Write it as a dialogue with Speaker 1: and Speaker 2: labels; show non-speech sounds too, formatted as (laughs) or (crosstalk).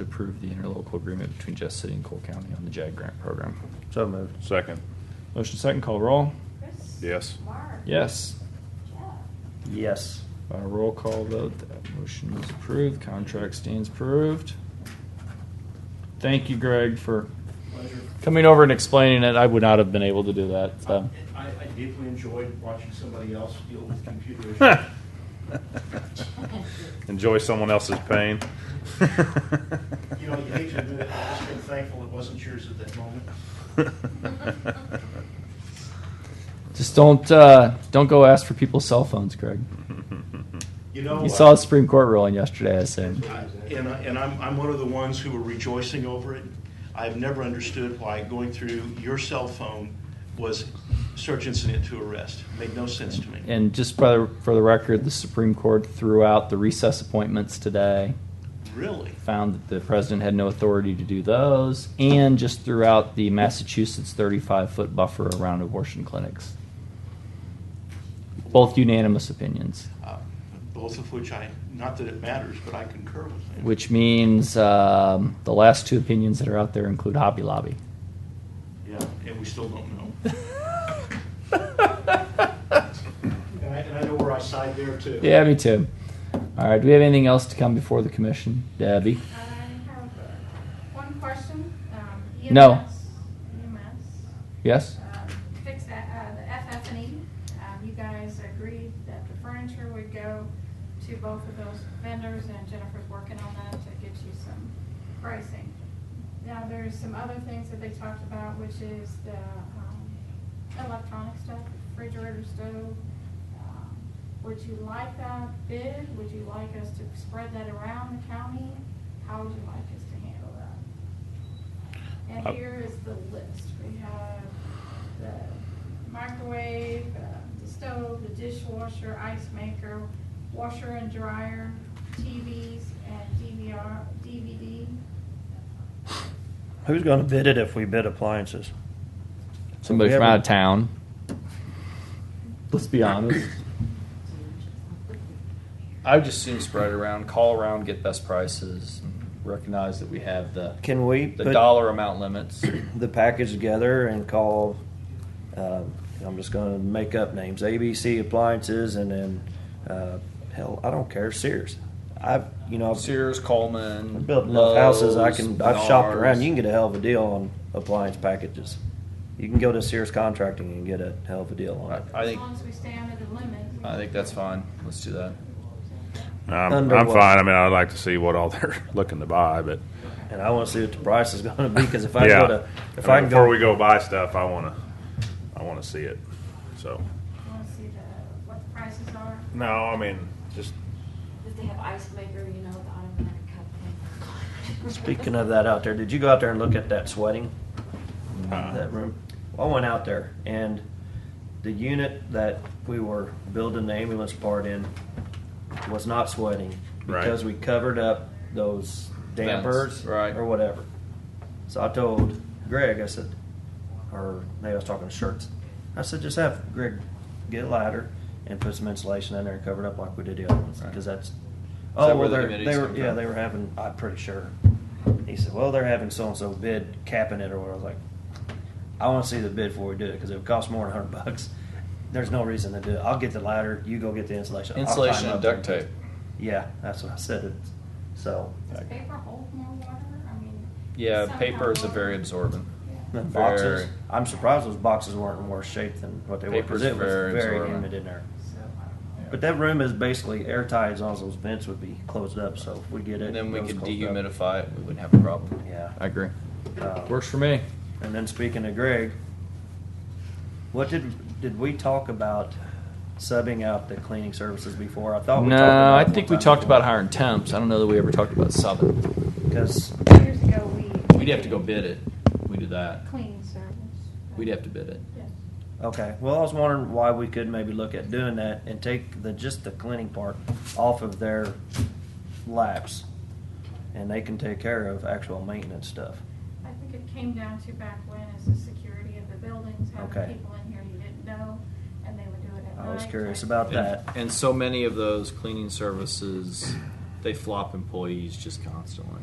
Speaker 1: approve the interlocal agreement between Jess City and Cole County on the JAG grant program.
Speaker 2: So moved.
Speaker 3: Second.
Speaker 1: Motion second, call roll.
Speaker 4: Chris?
Speaker 3: Yes.
Speaker 4: Mark?
Speaker 1: Yes.
Speaker 4: Jeff? (laughs)
Speaker 2: Yes.
Speaker 1: By roll call vote, that motion is approved. Contract stands approved. Thank you, Greg, for
Speaker 5: Pleasure.
Speaker 1: coming over and explaining it. I would not have been able to do that.
Speaker 5: (laughs)
Speaker 1: So.
Speaker 5: I, I deeply enjoyed watching somebody else deal with computer issues.
Speaker 2: (laughs)
Speaker 3: Enjoy someone else's pain. (laughs)
Speaker 5: You know, you hate to admit it, I've just been thankful it wasn't yours at that moment.
Speaker 1: Just don't uh, don't go ask for people's cell phones, Greg.
Speaker 5: You know.
Speaker 1: You saw
Speaker 5: uh,
Speaker 1: a Supreme Court ruling yesterday, I assume.
Speaker 5: I- And, I- and I'm, I'm one of the ones who are rejoicing over it. I've never understood why going through your cell phone was search incident to arrest. Made no sense to me.
Speaker 1: And just by the, for the record, the Supreme Court threw out the recess appointments today.
Speaker 5: Really?
Speaker 1: Found that the president had no authority to do those, and just threw out the Massachusetts 35 foot buffer around abortion clinics. Both unanimous opinions,
Speaker 5: Uh, Both of which I, not that it matters, but I concur with them.
Speaker 1: which means um, the last two opinions that are out there include Hobby Lobby. (laughs)
Speaker 5: Yeah, and we still don't know. And I, and I know where I side there too.
Speaker 1: Yeah, me too. All right, do we have anything else to come before the commission? Debbie?
Speaker 4: I have one question. Um,
Speaker 1: No.
Speaker 4: EMS, EMS,
Speaker 1: Yes?
Speaker 4: um, fix, that, uh, the FF&E. Um, you guys agreed that the furniture would go to both of those vendors and Jennifer's working on that to get you some pricing. Now, there's some other things that they talked about, which is the, um, electronic stuff, refrigerator, stove. um, Would you like that bid? Would you like us to spread that around the county? How would you like us to handle that?
Speaker 3: Uh,
Speaker 4: And here is the list. We have the microwave, uh, the stove, the dishwasher, ice maker, washer and dryer, TVs, and DVR, DVD.
Speaker 2: Who's going to bid it if we bid appliances?
Speaker 1: Somebody
Speaker 2: We
Speaker 1: from
Speaker 2: haven't-
Speaker 1: out of town. Let's be honest. I would just soon spread it around, call around, get best prices, and recognize that we have the
Speaker 2: Can we
Speaker 1: the
Speaker 2: put-
Speaker 1: dollar amount limits.
Speaker 2: the package together and call. um I'm just going to make up names: ABC Appliances, and then uh, hell, I don't care. Sears. I've you know I've
Speaker 1: Sears, Coleman,
Speaker 2: built enough houses. I
Speaker 1: Lowe's,
Speaker 2: can I've shopped
Speaker 1: Menards.
Speaker 2: around. You can get a hell of a deal on appliance packages. You can go to Sears Contracting and get a hell of a deal on it.
Speaker 1: I think
Speaker 4: As long as we stay under the limit.
Speaker 1: I think that's fine. Let's do that.
Speaker 3: I'm,
Speaker 2: Under
Speaker 3: I'm
Speaker 2: what?
Speaker 3: fine. I mean, I'd like to see what all they're (laughs) looking to buy, but
Speaker 2: And I want to see what the price is going to be because if I
Speaker 3: yeah.
Speaker 2: go to if
Speaker 3: I
Speaker 2: I
Speaker 3: mean,
Speaker 2: can
Speaker 3: before
Speaker 2: go
Speaker 3: we go buy stuff, I wanna, I wanna see it. So
Speaker 4: You wanna see the, what the prices are?
Speaker 3: no, I mean, just
Speaker 6: If they have ice maker, you know, the automatic cup thing.
Speaker 2: Speaking of that out there, did you go out there and look at that sweating?
Speaker 3: Uh-uh.
Speaker 2: That room? Well, I went out there and the unit that we were building the ambulance part in was not sweating
Speaker 3: Right.
Speaker 2: because we covered up those dampers
Speaker 1: Vents, right.
Speaker 2: or whatever. So I told Greg, I said, or maybe I was talking to shirts. I said, just have Greg get a ladder and put some insulation in there and cover it up like we did the other ones
Speaker 1: Right.
Speaker 2: because that's
Speaker 1: Is
Speaker 2: Oh,
Speaker 1: that
Speaker 2: well,
Speaker 1: where the
Speaker 2: they're,
Speaker 1: committees
Speaker 2: they were,
Speaker 1: come
Speaker 2: yeah,
Speaker 1: from?
Speaker 2: they were having, I'm pretty sure. He said, well, they're having so-and-so bid capping it or whatever. I was like, I want to see the bid before we do it because it would cost more than a hundred (laughs) bucks. There's no reason to do it. I'll get the ladder, you go get the insulation. I'll
Speaker 1: Insulation
Speaker 2: climb
Speaker 1: and
Speaker 2: up
Speaker 1: duct
Speaker 2: there."
Speaker 1: tape.
Speaker 2: Yeah, that's what I said. It's- So,
Speaker 4: Does paper hold more water? I mean.
Speaker 1: Yeah,
Speaker 4: somehow
Speaker 1: paper is a
Speaker 4: water-
Speaker 1: very absorbent.
Speaker 4: Yeah.
Speaker 2: then
Speaker 1: Very-
Speaker 2: boxes, I'm surprised those boxes weren't in worse shape than what they were
Speaker 1: Paper's
Speaker 2: because it was
Speaker 1: very
Speaker 2: very
Speaker 1: absorbent.
Speaker 2: humid in there.
Speaker 4: So, I don't know.
Speaker 2: But that room is basically airtight as long as those vents would be closed up. So if we get it,
Speaker 1: And then we
Speaker 2: those
Speaker 1: could
Speaker 2: closed up.
Speaker 1: dehumidify it. We wouldn't have a problem.
Speaker 2: Yeah.
Speaker 1: I agree.
Speaker 2: Uh,
Speaker 1: Works for me.
Speaker 2: And then speaking of Greg, what did did we talk about subbing out the cleaning services before? I thought we talked
Speaker 1: No,
Speaker 2: about
Speaker 1: I
Speaker 2: it one
Speaker 1: think we
Speaker 2: time
Speaker 1: talked
Speaker 2: before.
Speaker 1: about hiring temps. I don't know that we ever talked about subbing.
Speaker 2: because
Speaker 4: Years ago, we.
Speaker 1: We'd have to go bid it. We do that.
Speaker 4: Cleaning service.
Speaker 1: We'd have to bid it.
Speaker 4: Yes.
Speaker 2: okay. Well, I was wondering why we could maybe look at doing that and take the just the cleaning part off of their laps, and they can take care of actual maintenance stuff.
Speaker 4: I think it came down to back when is the security of the buildings,
Speaker 2: Okay.
Speaker 4: having people in here you didn't know, and they would do it at night.
Speaker 2: I was curious about
Speaker 1: And,
Speaker 2: that.
Speaker 1: and so many of those cleaning services, they flop employees just constantly.